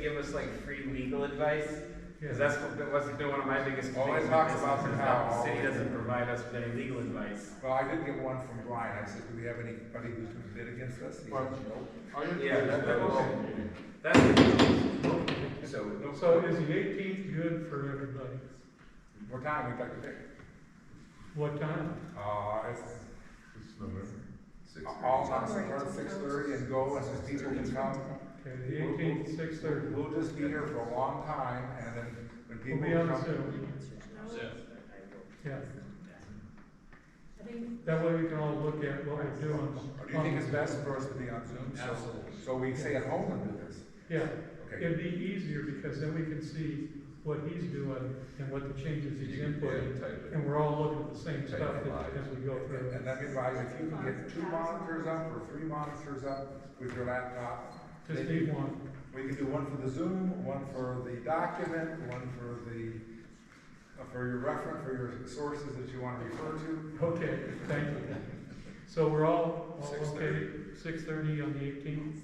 give us like free legal advice? Because that's what, that wasn't been one of my biggest complaints. Always with talks this, about the is that cow, City always. doesn't provide us with any legal advice. Well, I did get one from Brian, I said, do we have anybody who's gonna bid against us? He said, Well- no. Yeah, that- that was- That's the, So, So is the eighteenth good for everybody? what time would you like to pick? What time? Uh, it's It's November. all on the six thirty and go, and the people can come. Okay, the eighteenth, six thirty. We'll just be here for a long time, and then We'll when people be on come. Zoom, yeah. I think, That way we can all look at what we're doing. Or Do you think it's best for us to be on Zoom? So- Absolutely. So we stay at home and do this? Yeah, Okay. it'd be easier because then we can see what he's doing and what the changes he's inputting. And we're all looking at the same stuff as- as we go through. And let me advise, if you can get two monitors up or three monitors up with your laptop, Just need one. we can do one for the Zoom, one for the document, one for the, uh, for your reference, for your sources that you want to refer to. Okay, thank you. So we're all, all okay, 6:30. six thirty on the eighteenth?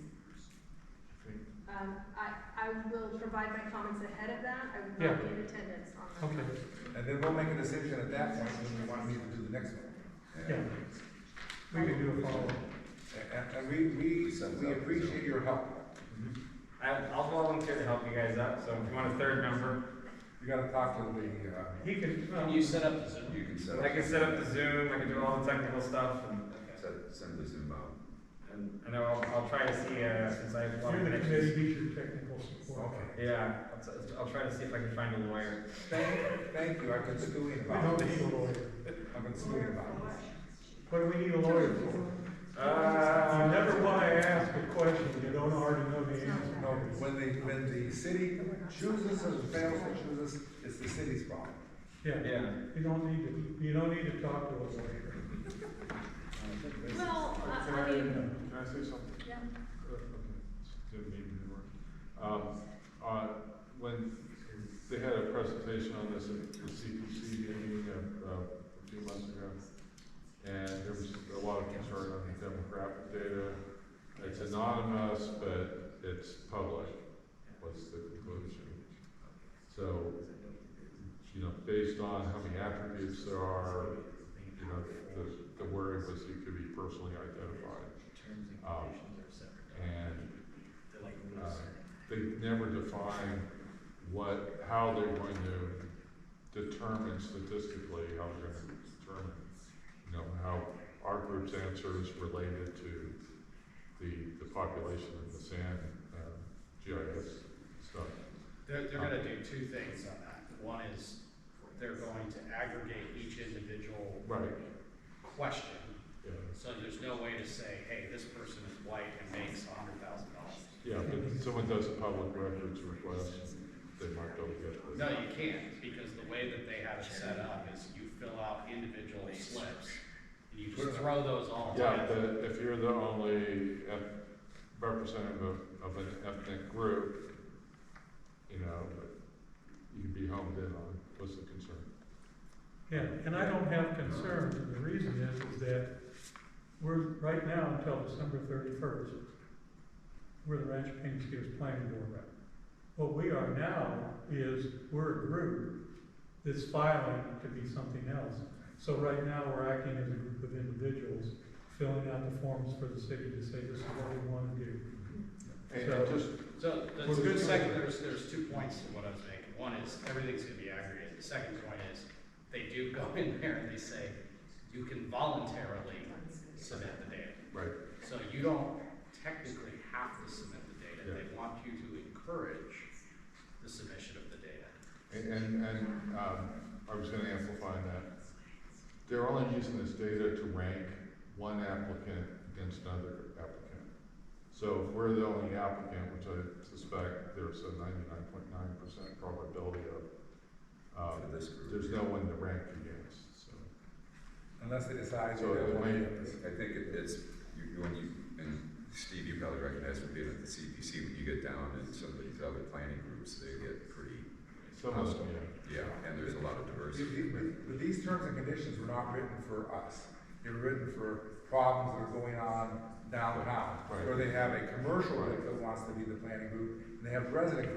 um, I, I will provide my comments ahead of that, I will Yeah. not be in attendance on that. Okay, And then we'll make a decision at that point when we want to do the next one. yeah. We can do a follow-up. And- And, and we, we, we appreciate your help. I, I'll volunteer to help you guys out, so if you want a third member, You gotta talk to the, uh, He can, Can well, you set up the Zoom? You can set up. I can set up the Zoom, I can do all the technical stuff, and, Okay. Set- Send the Zoom out. and I know I'll, I'll try to see, uh, since I have a lot of you're the committee, connections. he's your technical support. uh, okay. Yeah, I'll, t- I'll try to see if I can find a lawyer. Thank, thank you, I've been stewing We don't about it. need a lawyer. I've been stewing about it. What do we need a lawyer for? You Uh, never want to ask a question you don't already know the answer. No, when the, when the city chooses or fails to choose us, it's the city's problem. Yeah, Yeah. you don't need to, you don't need to talk to a lawyer. Well, I, I mean, Can I say something? yeah, Didn't mean to interrupt. Um, uh, when they had a presentation on this at the CPC meeting uh, uh, a few months ago, and there was a lot of concern on the demographic data. It's anonymous, but it's public, was the conclusion. So, you know, based on how many attributes there are, you know, the, the worry was you could be personally identified. Um, And uh, they never define what, how they're going to determine statistically, how they're going to determine, you know, how our group's answer is related to the, the population of the sand, uh, GIS stuff. They're, they're gonna do two things on that. One is, they're going to aggregate each individual Right, question. yeah, So there's no way to say, hey, this person is white and makes a hundred thousand dollars. yeah, but if someone does a public records request, they might go get No, this. you can't, because the way that they have it set up is you fill out individual slips, and you just throw those all Yeah, together. but if you're the only eth- representative of, of an ethnic group, you know, you can be homed in on what's the concern. Yeah, and I don't have concerns, and the reason is, is that we're, right now until December thirty-first, we're the Rancho Paines Hills Planning Board rep. What we are now is, we're a group that's filing to be something else. So right now, we're acting as a group of individuals, filling out the forms for the city to say, this is what we wanna do. And it just, So, that's a good second, there's, there's two points to what I was making. One is, everything's gonna be aggregated. The second point is, they do go in there and they say, you can voluntarily submit the data. right, So you don't technically have to submit the data. They want you to encourage the submission of the data. and, and, and, um, I was gonna amplify that. They're only using this data to rank one applicant against another applicant. So if we're the only applicant, which I suspect there's a ninety-nine point nine percent probability of, um, For this group. there's no one to rank against, so. Unless they decide. So it may- It's I think it- it's, you, you- when you, and Steve, you probably recognize from being at the CPC, when you get down in some of these other planning groups, they get pretty, Some of them, yeah. yeah, and there's a lot of You- diversity. you- But these terms and conditions were not written for us. They were written for problems that are going on downtown, Right. where they have a commercial group Right. that wants to be the planning group, and they have resident